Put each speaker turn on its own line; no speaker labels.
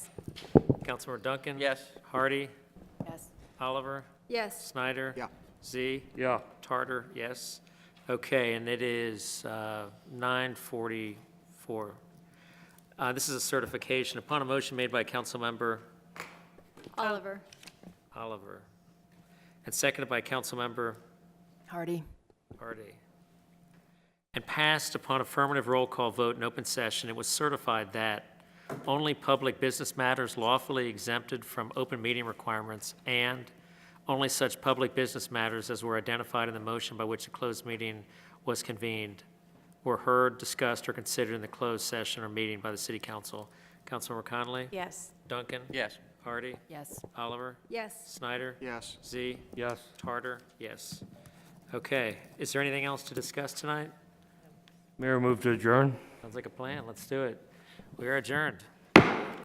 Councilmember Duncan?
Yes.
Hardy?
Yes.
Oliver?
Yes.
Snyder?
Yeah.
Z?
Yeah.
Tarter, yes. Okay, and it is uh, 9:44. Uh, This is a certification. Upon a motion made by Councilmember
Oliver.
Oliver and seconded by Councilmember
Hardy.
Hardy, and passed upon affirmative roll call vote in open session, it was certified that only public business matters lawfully exempted from open meeting requirements and only such public business matters as were identified in the motion by which a closed meeting was convened were heard, discussed, or considered in the closed session or meeting by the city council. Councilmember Connolly?
Yes.
Duncan?
Yes.
Hardy?
Yes.
Oliver?
Yes.
Snyder?
Yes.
Z?
Yes.
Tarter? Yes. Okay, is there anything else to discuss tonight?
Mayor, move to adjourn.
Sounds like a plan, let's do it. We are adjourned.